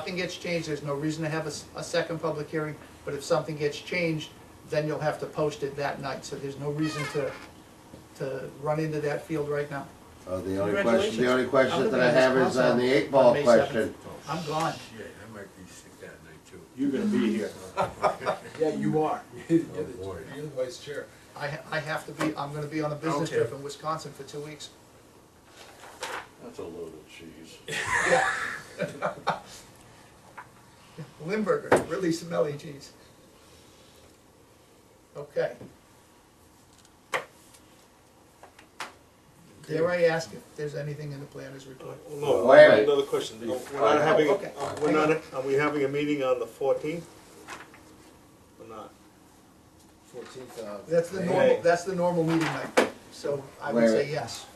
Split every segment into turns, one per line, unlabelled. Nothing gets changed, there's no reason to have a, s- a second public hearing, but if something gets changed, then you'll have to post it that night, so there's no reason to, to run into that field right now.
Uh, the only
Congratulations.
question, the only
I'm
question that
gonna
I
be
have is on
responsible
the eight
on
ball
May
question.
7th. I'm gone.
Yeah, I might be sick that night too.
You're gonna be here.
Yeah, you are.
Oh, boy.
You're the vice chair.
I, ha- I have to be, I'm gonna be on a business
Okay.
trip in Wisconsin for two weeks.
That's a load of cheese.
Limburger, really smelly cheese. Okay. Dare I ask if there's anything in the planner's report?
Wait a
No, I have
minute.
another question. We're not having,
Oh, okay.
uh, we're not, are we having a meeting on the fourteenth? Or not?
Fourteenth of.
That's the
May.
normal, that's the normal meeting night, so I would
Wait.
say yes.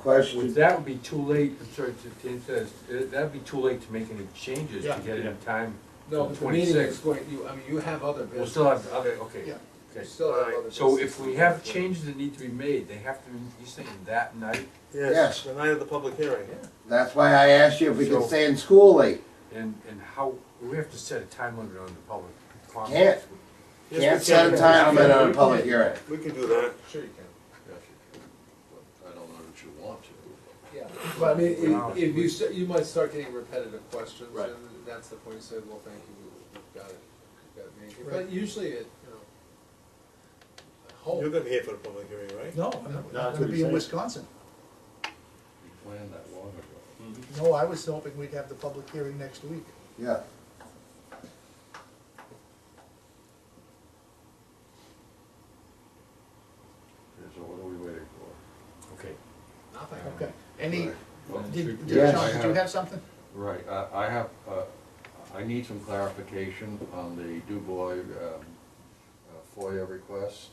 Question,
Well, that oh, would be too late, I'm sorry, to- Tim says, uh, that'd be too late to make any changes to
Yeah.
get it in time.
No,
for
but the meeting is
26.
going, you, I mean, you have other
We'll
business.
still have, okay, okay,
Yeah.
You
okay.
still have other
Alright,
business.
So if we have changes that need to be made, they have to, be you're saying that night,
Yes.
Yes, the night of the public hearing.
that's why I asked you if we could stay in school late.
and, and how, we have to set a time limit on the public
Can't.
comments.
Yes,
Can't
we
set a
can.
time limit on a
We can.
public hearing.
We can do that.
Sure you can.
I don't know that you want to.
Yeah, but I mean,
Wow.
if, if you, st- you might start getting repetitive questions,
Right.
and that's the point, you say, well, thank you, we- we've got it, we've got it made.
Right.
But usually it, you know, I
You're
hope,
gonna be here for the public hearing, right?
No, I'm not-
No,
I'm
that's
gonna
what
be
he
in
said.
Wisconsin.
You planned that long ago.
No, I was hoping we'd have the public hearing next week.
Yeah.
Okay, so what are we waiting for?
Okay.
nothing.
Okay. Any,
Well,
did, did
Yes.
Sean, did you have something?
Right, I, I have, uh, I need some clarification on the DuBois, um, uh, FOIA request.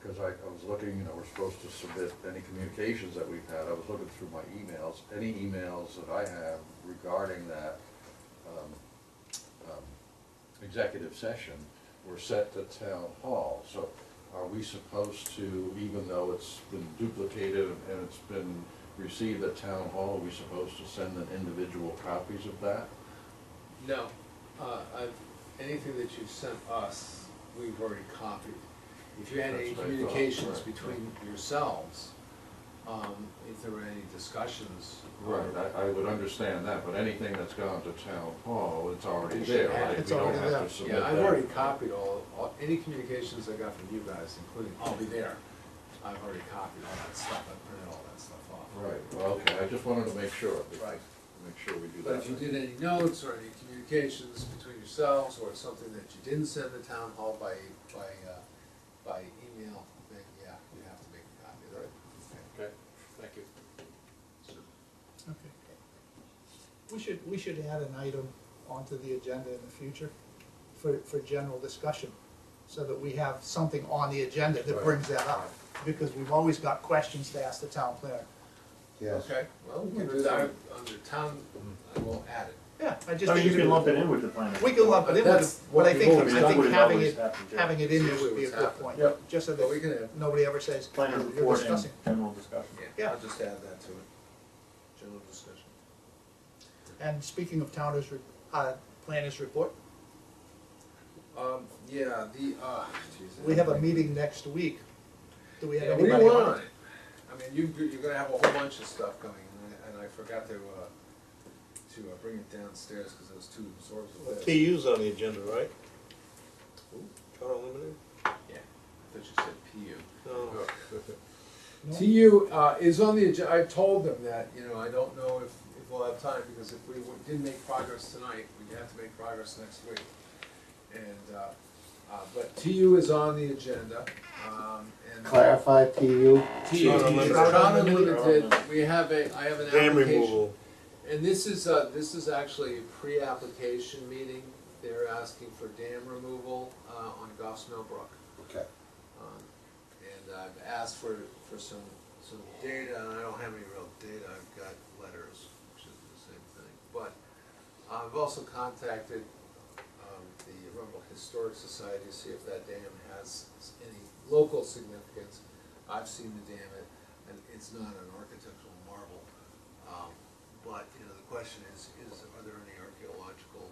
Because I, I was looking, you know, we're supposed to submit any communications that we've had, I was looking through my emails, any emails that I have regarding that, um, um, executive session were set to town hall, so are we supposed to, even though it's been duplicated and it's been received at town hall, are we supposed to send them individual copies of that?
No, uh, I've, anything that you've sent us, we've already copied. If you had any
That's what I thought,
communications
right.
between yourselves, um, if there were any discussions.
I, I would understand that, but anything that's gone to town hall, it's already
It's
there, right?
already
We don't
there.
have to
Yeah,
submit
Yeah, I've
that.
already copied all, all, any communications I got from you guys, including, I'll be there. I've already copied all that stuff, I printed all that stuff off.
Right, well, okay, I just wanted to make sure,
Right.
make sure we do that.
But if you did any notes or any communications between yourselves, or something that you didn't send to town hall by, by, uh, by email, then yeah, you have to make a copy of it.
Okay, thank you.
Okay. We should, we should add an item onto the agenda in the future for, for general discussion, so that we have something on the agenda that
Right.
brings that up, because we've always got questions to ask the town planner.
Yes.
Okay, well, we can do that under town, I will add it.
Yeah, I just.
So
think
you
it's
can
a-
lump it in with the planning.
We can lump it in, with
That's
it, but I
what
think,
we've
always
I
done.
think
That's
having
what
it,
we've always happened, yeah.
having it in there
Usually
would be a
what's
good
happened.
point.
Yep.
Just so
But we
that
can add,
nobody ever says,
Planning
you're
report and
discussing.
general discussion.
Yeah.
I'll just add that to it, general discussion.
And speaking of towners, re- uh, planners report,
Um, yeah, the, uh. geez,
we have a
I-
meeting next week. Do we have
Yeah, what do
anybody
you
on?
want? I mean, you, you're- you're gonna have a whole bunch of stuff coming, and I, and I forgot to, uh, to uh, bring it downstairs, cause I was too absorbed with this.
TU's on the agenda, right? Town Unlimited?
I thought you said PU.
No.
No?
TU, uh, is on the agenda, I told them that, you know, I don't know if, if we'll have time, because if we w- didn't make progress tonight, we'd have to make progress next week. And, uh, uh, but TU is on the agenda, um, and.
Clarify PU.
TU,
Town Unlimited.
Town Unlimited, we have a, I have an
Dam
application.
removal.
And this is, uh, this is actually a pre-application meeting, they're asking for dam removal, uh, on Goffs Mill Brook.
Okay.
Um, And I've asked for, for some, some data, and I don't have any real data, I've got letters, which is the same thing. But I've also contacted, um, the Rumble Historic Society to see if that dam has any local significance. I've seen the dam, it, and it's not an architectural marvel, um, But, you know, the question is, is, are there any archaeological